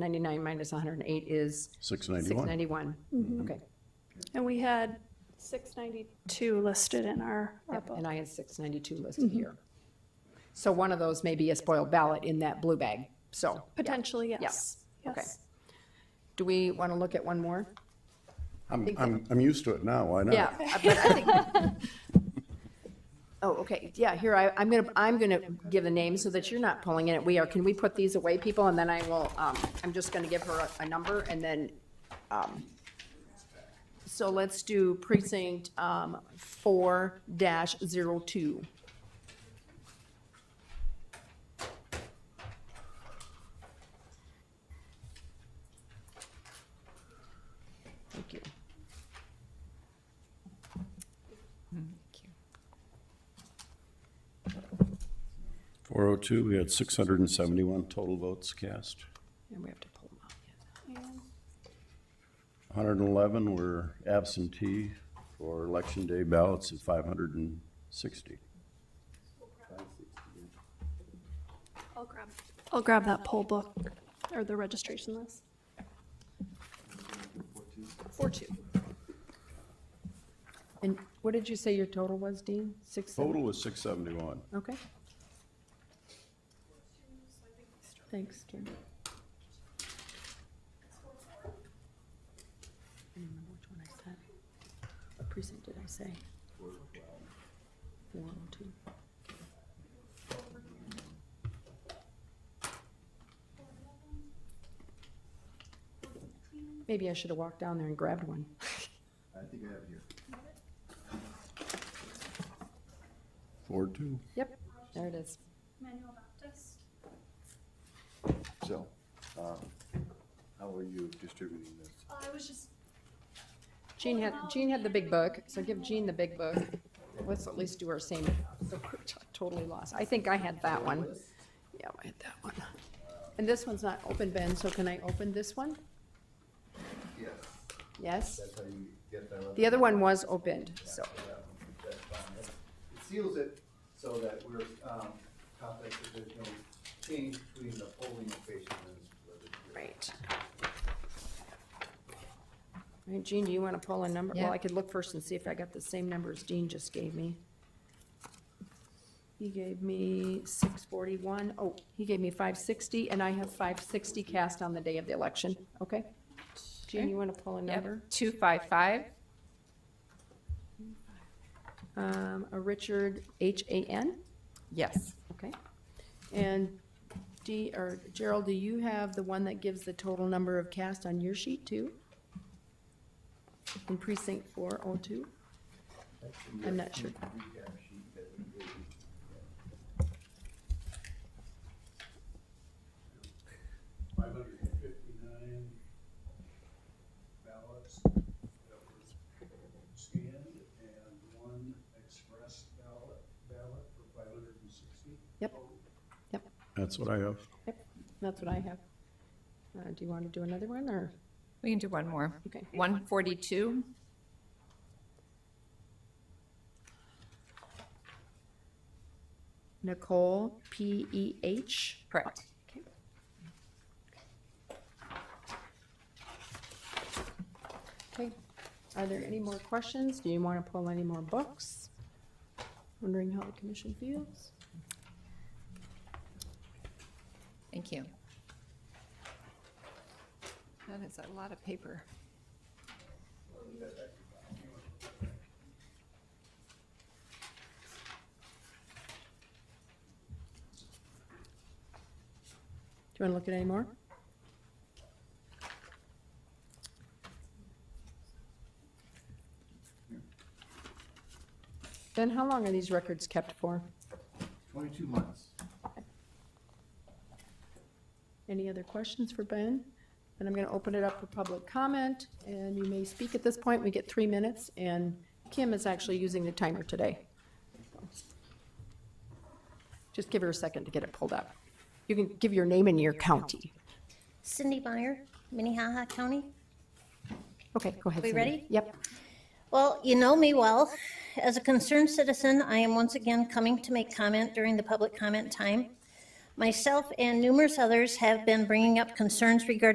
799 minus 108 is 691. 691. Okay, And we had 692 listed in our Yep, Mm-hmm. ARPA. and I had 692 listed here. So one of those may be a spoiled ballot in that blue bag, so. Potentially, Yeah. yes. Okay. Yes. Do we want to look at one more? I'm, I'm, I'm used to it now, why not? uh, but I think- Oh, okay, yeah, here, I, I'm gonna, I'm gonna give the name so that you're not pulling in it. We are, can we put these away, people, and then I will, um, I'm just gonna give her a, a number and then, um, so let's do precinct, um, four dash zero two. Thank you. Four oh two, we had six hundred and seventy-one total votes cast. And we have to pull them out. yes. Hundred and eleven were absentee for election day ballots of five hundred and sixty. I'll grab, I'll grab that poll book or the registration list. Four two. And what did you say your total was, Dean? Six? seven- Total was six seventy-one. Okay. Thanks, Jim. I don't remember which one I said. What precinct did I say? Four oh two. Maybe I should have walked down there and grabbed one. Four two. Yep, there it is. Manuel Baptist. So, um, how are you distributing this? Uh, I was just, Jean had, Jean had the big book, so give Jean the big book. Let's at least do our same, so we're t- totally lost. I think I had that one. Yeah, I had that one. And this one's not open, Ben, so can I open this one? Yes, Yes? that's how you get that. The other one was opened, so, That's fine. It seals it so that we're, um, confident that there's no change between the polling location and. right. All right, Jean, do you want to pull a number? Well, I could look first and see if I got the same numbers Dean just gave me. He gave me six forty-one. Oh, he gave me five sixty, and I have five sixty cast on the day of the election, okay? Jean, you want to pull a number? Two five five, Um, a Richard, H A N, yes. okay? And D, or Gerald, do you have the one that gives the total number of cast on your sheet too? In precinct four oh two? I'm not sure. Recap sheet that we gave you. five hundred and fifty-nine ballots that were scanned and one express ballot, ballot for five hundred and sixty. Yep. That's what I have. Yep, that's what I have. Uh, do you want to do another one, or, We can do one more. Okay. One forty-two, Nicole, P E H? correct. Okay, are there any more questions? Do you want to pull any more books? Wondering how the commission feels? Thank you. That is a lot of paper. Do you want to look at any more? Ben, how long are these records kept for? Twenty-two months. Any other questions for Ben? And I'm going to open it up for public comment, and you may speak at this point. We get three minutes, and Kim is actually using the timer today. Just give her a second to get it pulled up. You can give your name and your county. Cindy Meyer, Minnehaha County. Okay, go ahead. We Cindy. ready? Yep. Well, you know me well. As a concerned citizen, I am once again coming to make comment during the public comment time. Myself and numerous others have been bringing up concerns regarding